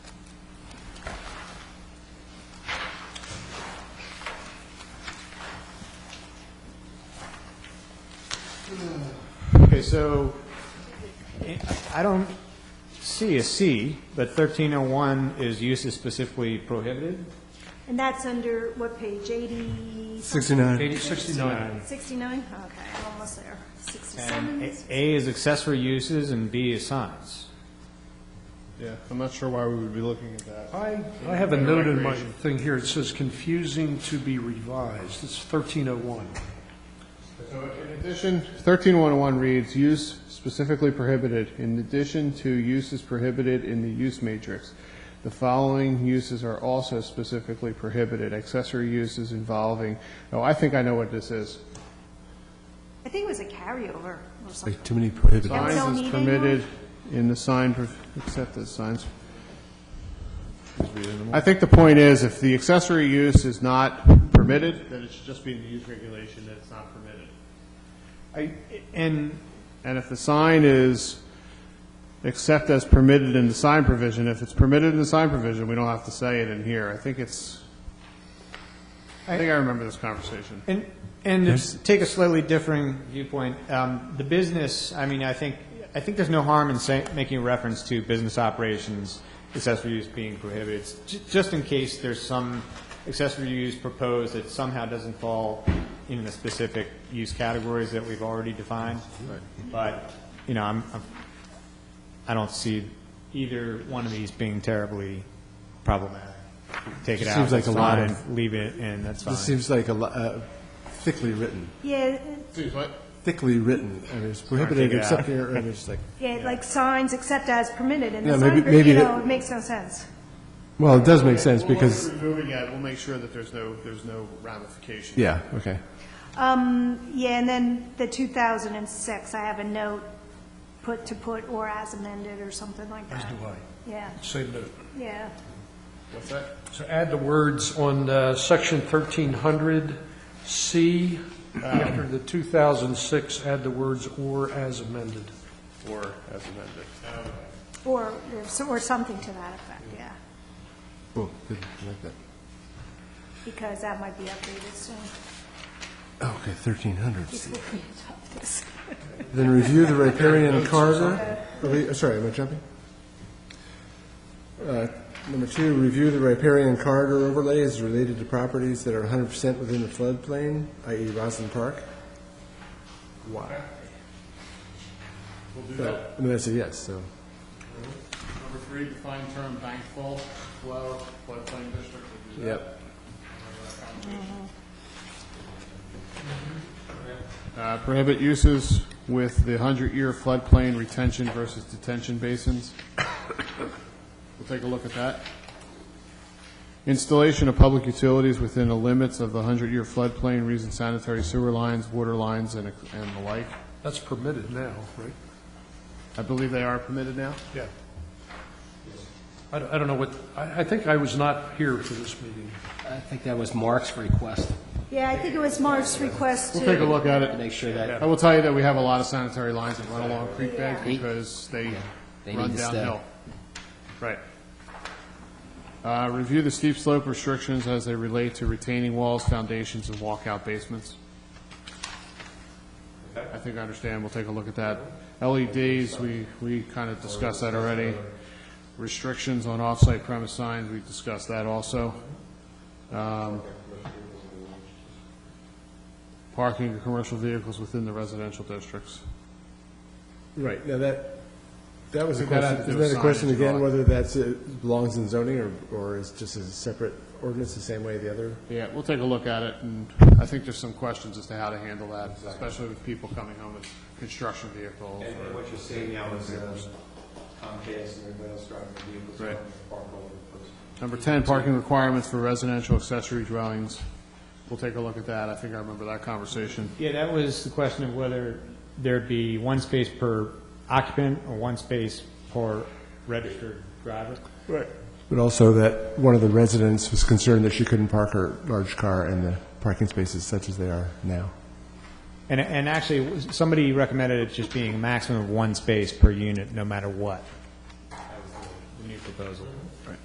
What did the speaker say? Okay, so I don't see a C, but 1301 is uses specifically prohibited? And that's under what page, 80? 69. Eighty sixty-nine. 69? Okay, I'm almost there. And 67? A- A is accessory uses and B is signs. Yeah, I'm not sure why we would be looking at that. I, I have a note in my thing here, it says confusing to be revised, it's thirteen oh one. So in addition, 13101 reads, "Use specifically prohibited. In addition to uses prohibited in the use matrix, the following uses are also specifically prohibited. Accessory uses involving," oh, I think I know what this is. I think it was a carryover or something. Like too many prohibited. Yeah. we don't Signs is need permitted in the sign, pro- except that signs. I think the point is, if the accessory use is not permitted, then it should just be in the use regulation that it's not permitted. I- And And if the sign is, except as permitted in the sign provision, if it's permitted in the sign provision, we don't have to say it in here. I think it's, I think I remember this conversation. And, and to s- take a slightly differing viewpoint, um, the business, I mean, I think, I think there's no harm in say, making a reference to business operations, accessory use being prohibited, j- just in case there's some accessory use proposed that somehow doesn't fall in the specific use categories that we've already defined. But, you know, I'm, I'm, I don't see either one of these being terribly problematic. Take it out, Seems like that's a lot of- fine, leave it in, that's fine. This seems like a, lo- uh, thickly written, Yeah, thickly written. I mean, it's prohibited take it except out. here, and it's like, yeah, like signs except as permitted, and Yeah, the maybe- sign, per- maybe you the- know, it makes no sense. well, it does make sense because, Removing it, we'll make sure that there's no, there's no ramification. yeah, okay. Um, yeah, and then the 2006, I have a note, put to put or as amended or something like As that. do I. Yeah, Same note. yeah. What's that? So add the words on uh, section 1300C, after the 2006, add the words "or as amended." Or as amended. Or, or something to that effect, yeah, Cool, good, I like that. because that might be updated soon. Okay, 1300. He's looking at this. Then review the riparian corridor. Are we- uh, Sorry, am I jumping? Uh, Number two, review the riparian corridor overlays related to properties that are 100% within the floodplain, i.e. Roslyn Park. Why? We'll do that. I mean, that's a yes, so. Number three, define term bank fault, flow, floodplain district. Yep. Uh, Prohibit uses with the 100-year floodplain retention versus detention basins. We'll take a look at that. Installation of public utilities within the limits of the 100-year floodplain, reason sanitary sewer lines, water lines, and and the like. That's permitted now, right? I believe they are permitted now. Yeah. I don't I don't know what, I I think I was not here for this meeting. I think that was Mark's request, Yeah, I think it was Mark's request to. We'll take a look at to it. make sure that I will tell you that we have a lot of sanitary lines that run along Creek Bank Yeah. because they They run need to stay. downhill. Right. Uh, Review the steep slope restrictions as they relate to retaining walls, foundations, and walkout basements. I think I understand, we'll take a look at that. LEDs, we, we kind of discussed that already. Restrictions on off-site premise signs, we discussed that also. Um, Parking of commercial vehicles within the residential districts. Right, now that, that was a That had question, to do isn't with that a question signage, again, right. whether that's, uh, belongs in zoning or, or is just a separate ordinance, the same way the other? Yeah, we'll take a look at it, and I think there's some questions as to how to handle that, especially with people coming home with construction vehicles. And and what you're seeing now is uh, Comcast and everybody else driving their vehicles Right. around the park all over the place. Number 10, parking requirements for residential accessory dwellings. We'll take a look at that, I think I remember that conversation. Yeah, that was the question of whether there'd be one space per occupant or one space per registered driver. But also that one of the residents was concerned that she couldn't park her large car in the parking spaces such as they are now. And, and actually, it was- somebody recommended it just being a maximum of one space per unit, no matter what. That was the new proposal.